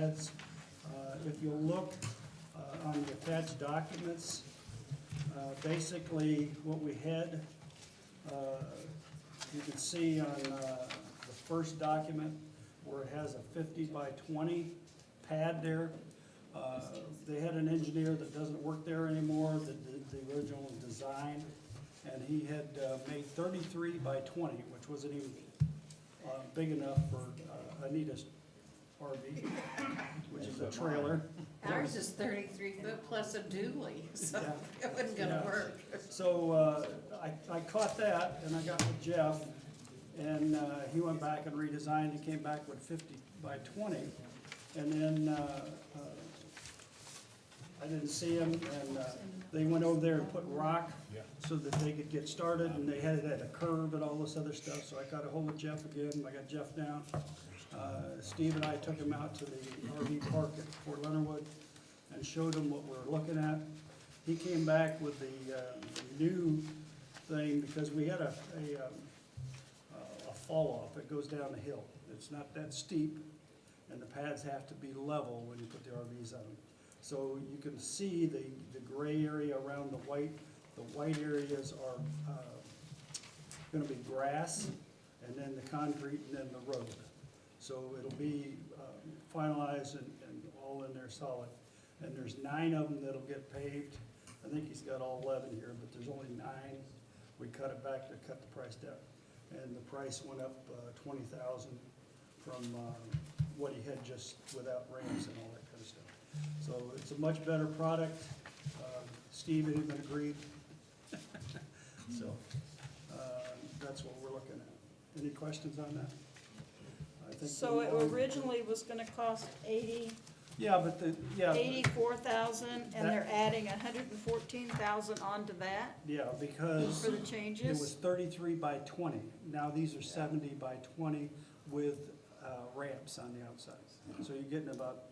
That's, uh, if you look uh, on the attached documents, uh, basically what we had, uh, you can see on uh, the first document where it has a 50 by 20 pad there. Uh, They had an engineer that doesn't work there anymore, that did the original design, and he had uh, made 33 by 20, which wasn't even uh, big enough for uh, Anita's RV, which is a trailer. Ours is thirty-three foot plus a dually, so Yeah. it wasn't gonna Yeah. work. So uh, I I caught that, and I got with Jeff, and uh, he went back and redesigned, and came back with 50 by 20. And then uh, uh, I didn't see him, and uh, they went over there and put rock so that they could get started, and they had it at a curve and all this other stuff, so I got a hold of Jeff again, and I got Jeff down. Uh, Steve and I took him out to the RV park at Fort Leonardwood and showed him what we're looking at. He came back with the uh, the new thing, because we had a, a, um, a fall off, it goes down the hill. It's not that steep, and the pads have to be level when you put the RVs on them. So you can see the, the gray area around the white, the white areas are, uh, gonna be grass, and then the concrete, and then the road. So it'll be um, finalized and, and all in there solid. And there's nine of them that'll get paved. I think he's got all eleven here, but there's only nine. We cut it back to cut the price down. And the price went up uh, twenty thousand from um, what he had just without ramps and all that kind of stuff. So it's a much better product. Um, Steve and him agreed. So uh, that's what we're looking at. Any questions on that? I think So it we- originally was gonna cost eighty, Yeah, but the, yeah. but- eighty-four thousand, and they're adding a hundred and fourteen thousand onto that Yeah, because for the it was changes? thirty-three by twenty. Now these are seventy by twenty with uh, ramps on the outside. So you're getting about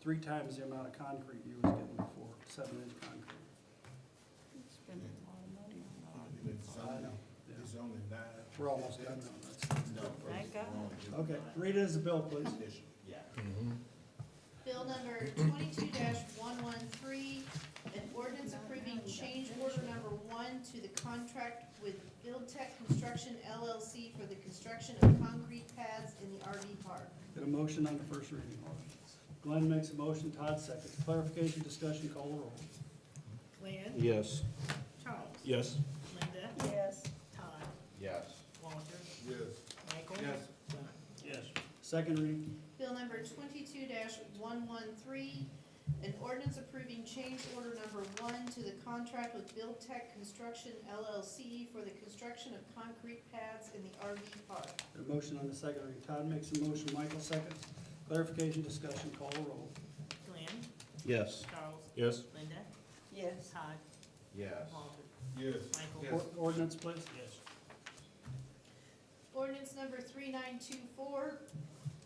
three times the amount of concrete you was getting before, seven-inch concrete. Spending a lot of money on It's I only, know, it's only nine. We're almost done now. that's- No. Thank God. we're only Okay, doing read it as a bill, please. nine this year. Yeah. Bill number twenty-two one one three, an ordinance approving change order number one to the contract with Build Tech Construction LLC for the construction of concrete pads in the RV park. Get a motion on the first reading. Glenn makes a motion, Todd seconds. Clarification, discussion, call the roll. Glenn? Yes. Charles? Yes. Linda? it. Yes. Todd? Yes. Walter? Yes. Michael? Yes. Don? Yes. Second reading, Bill number twenty-two one one three, an ordinance approving change order number one to the contract with Build Tech Construction LLC for the construction of concrete pads in the RV park. get a motion on the second reading. Todd makes a motion, Michael seconds. Clarification, discussion, call the roll. Glenn? Yes. Charles? Yes. Linda? Yes. Todd? Yes. Walter? Yes. Michael? Or- Ordinance, please? Yes. Ordinance number 3924,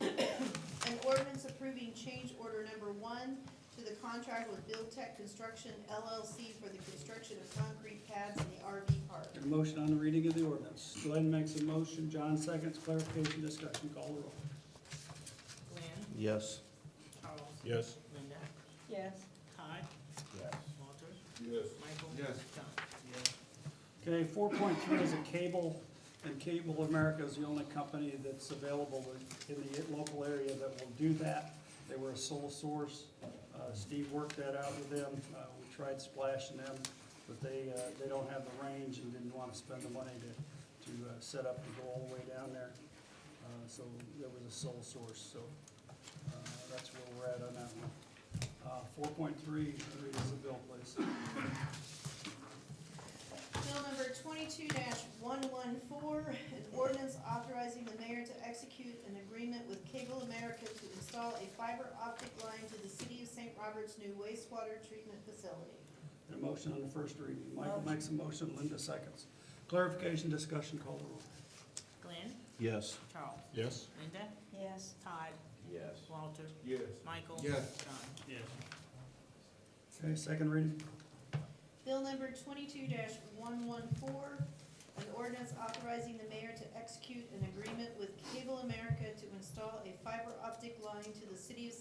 an ordinance approving change order number one to the contract with Build Tech Construction LLC for the construction of concrete pads in the RV park. Get a motion on the reading of the ordinance. Glenn makes a motion, John seconds, clarification, discussion, call the roll. Glenn? Yes. Charles? Yes. Linda? Yes. Todd? Yes. Walter? Yes. Michael? Yes. Don? Okay, four point three is a cable, and Cable America is the only company that's available in in the local area that will do that. They were a sole source. Uh, Steve worked that out with them. Uh, we tried splashing them, but they, uh, they don't have the range and didn't want to spend the money to, to uh, set up and go all the way down there. Uh, so there was a sole source, so, uh, that's where we're at on that one. Uh, four point three, read as a bill, please. Bill number twenty-two one one four, an ordinance authorizing the mayor to execute an agreement with Cable America to install a fiber optic line to the city of St. Robert's new wastewater treatment facility. A motion on the first reading. Michael makes a motion, Linda seconds. Clarification, discussion, call the roll. Glenn? Yes. Charles? Yes. Linda? Yes. Todd? Yes. Walter? Yes. Michael? Yes. Don? Yes. Okay, second reading. Bill number twenty-two one one four, an ordinance authorizing the mayor to execute an agreement with Cable America to install a fiber optic line to the city of St.